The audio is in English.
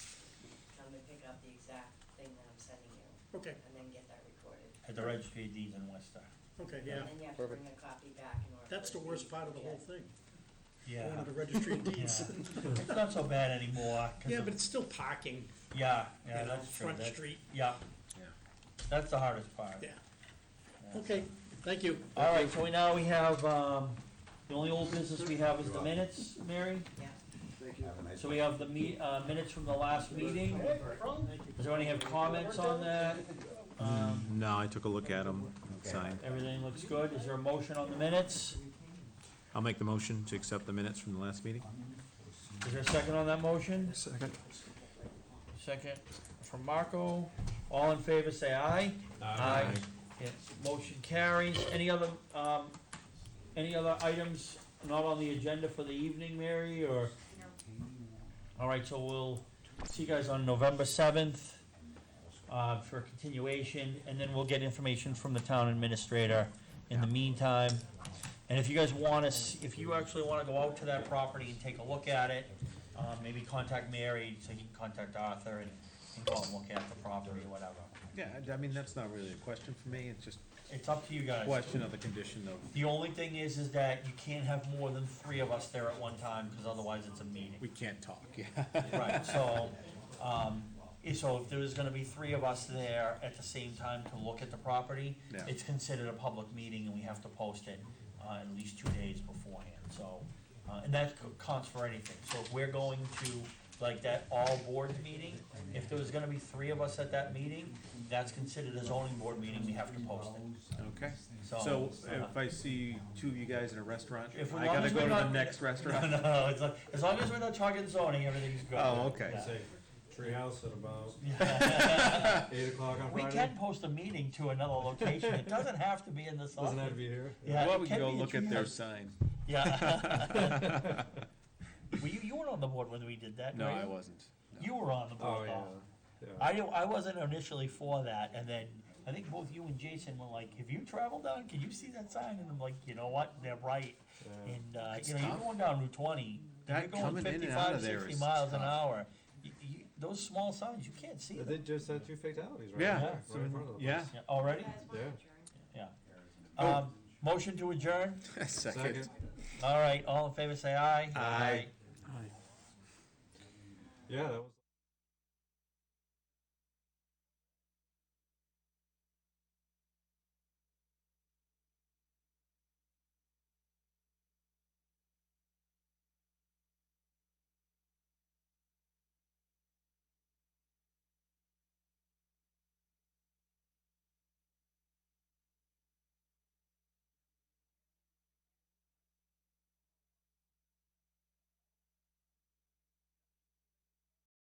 out the exact thing that I'm sending you, Okay, and then get that recorded. At the registry of deeds in Worcester. okay, And yeah. then you have to bring a copy back in order. That's the for it to worst be part of the whole legit. thing, Yeah. going to the registry of Yeah. deeds. It's not so bad anymore. 'cause Yeah, but of- it's still parking, Yeah, yeah, you know, that's true. Front That- Street, Yeah. That's the hardest part. yeah. Yeah. Okay, thank you. All right, so we now we have, um, the only old business we have is the minutes, Mary. Yeah, So we have the me, uh, minutes from the last meeting. Does anyone have comments on that? Um, No, I took a look at them, signed. everything looks good. Is there a motion on the minutes? I'll make the motion to accept the minutes from the last meeting. Is there a second on that motion? Second. Second from Marco. All in favor, say aye. Aye. Yes, motion carries. Any other, um, any other items not on the agenda for the evening, Mary, or? All right, so we'll see you guys on November seventh, uh, for a continuation, and then we'll get information from the town administrator in the meantime. And if you guys want us, if you actually wanna go out to that property and take a look at it, uh, maybe contact Mary, so he can contact Arthur and, and go out and look at the property or whatever. Yeah, I- I mean, that's not really a question for me, it's just It's up to you a guys. question of the condition of, The only thing is, is that you can't have more than three of us there at one time, because otherwise it's a meeting. we can't talk, yeah. Right, so, um, eh, so if there was gonna be three of us there at the same time to look at the property, Yeah. it's considered a public meeting and we have to post it, uh, at least two days beforehand, so. Uh, and that co- counts for anything, so if we're going to, like, that all board meeting, if there was gonna be three of us at that meeting, that's considered a zoning board meeting, we have to post it, Okay, so. so uh, if I see two of you guys in a restaurant, If I gotta as go we're to the not- next No, restaurant? no, it's like, as long as we're not talking zoning, everything's good. Oh, okay. Yeah. Say, treehouse at about eight o'clock on We Friday. can post a meeting to another location, it doesn't have to be in this Doesn't have to office. be here. Yeah, Well, it we can can go be a look at their treehouse. sign. Yeah. Were you, you weren't on the board when we did that, No, right? I wasn't. You were on the Oh, board, yeah. though. yeah. I, don't- I wasn't initially for that, and then, I think both you and Jason were like, have you traveled down, can you see that sign? And I'm like, you know what, they're right, yeah. and, uh, It's you know, you're tough. going down Route twenty, you're That going coming in and out fifty-five, of there sixty is miles an tough. hour. You, you, those small signs, you can't see But them. They just had two fatalities right Yeah, there, so right in in- front of us. yeah. Yeah, Already? Yeah. Yeah. Um, motion to adjourn? Second. All right, all in favor, say aye. Aye. Yeah, that was.